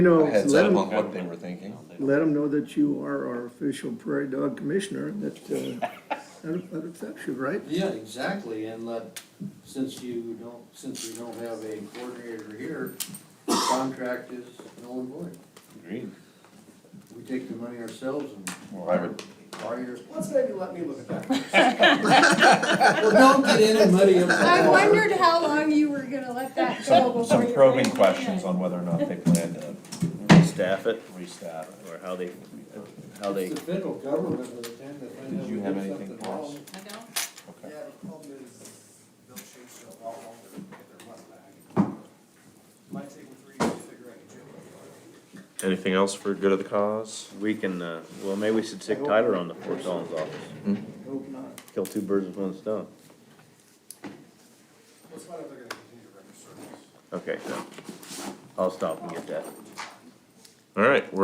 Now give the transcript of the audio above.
know, a heads let up them, on what they were thinking. let 'em know that you are our official prairie dog commissioner, that, uh, that that affects you, right? Yeah, exactly, and let, since you don't, since we don't have a coordinator here, the contract is null and void. Agreed. We take the money ourselves and Well, I would, are your, Let's maybe let me look at that. well, don't get in and muddy up the I water. wondered how long you were gonna let that go some, before some you probing raised it. questions on whether or not they plan to Restaff it, restaff. or how they, how they, It's the federal government by the time they find out Did you we have did anything something for us? wrong. I don't. Yeah, Okay. the problem is, they'll chase you a lot longer to get their money back. Might take them three years to figure out your job. Anything else for good of the cause? we can, uh, well, maybe we should stick Tyler on the Fort Collins office. Hmm? Hope not. Kill two birds with one stone. Let's find out if they're gonna continue to render service. Okay, so I'll stop and get that. All right, we're